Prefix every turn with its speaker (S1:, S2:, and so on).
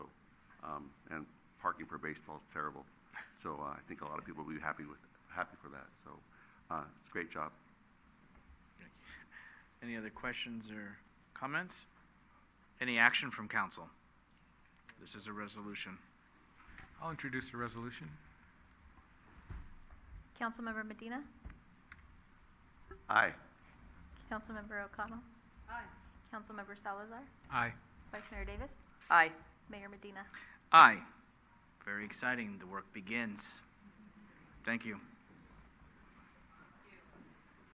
S1: um, and parking for baseball is terrible. So uh, I think a lot of people will be happy with, happy for that. So uh, it's a great job.
S2: Any other questions or comments? Any action from council? This is a resolution.
S3: I'll introduce the resolution.
S4: Councilmember Medina.
S1: Aye.
S4: Councilmember O'Connell.
S5: Aye.
S4: Councilmember Salazar.
S3: Aye.
S4: Vice Mayor Davis.
S5: Aye.
S4: Mayor Medina.
S2: Aye. Very exciting. The work begins. Thank you.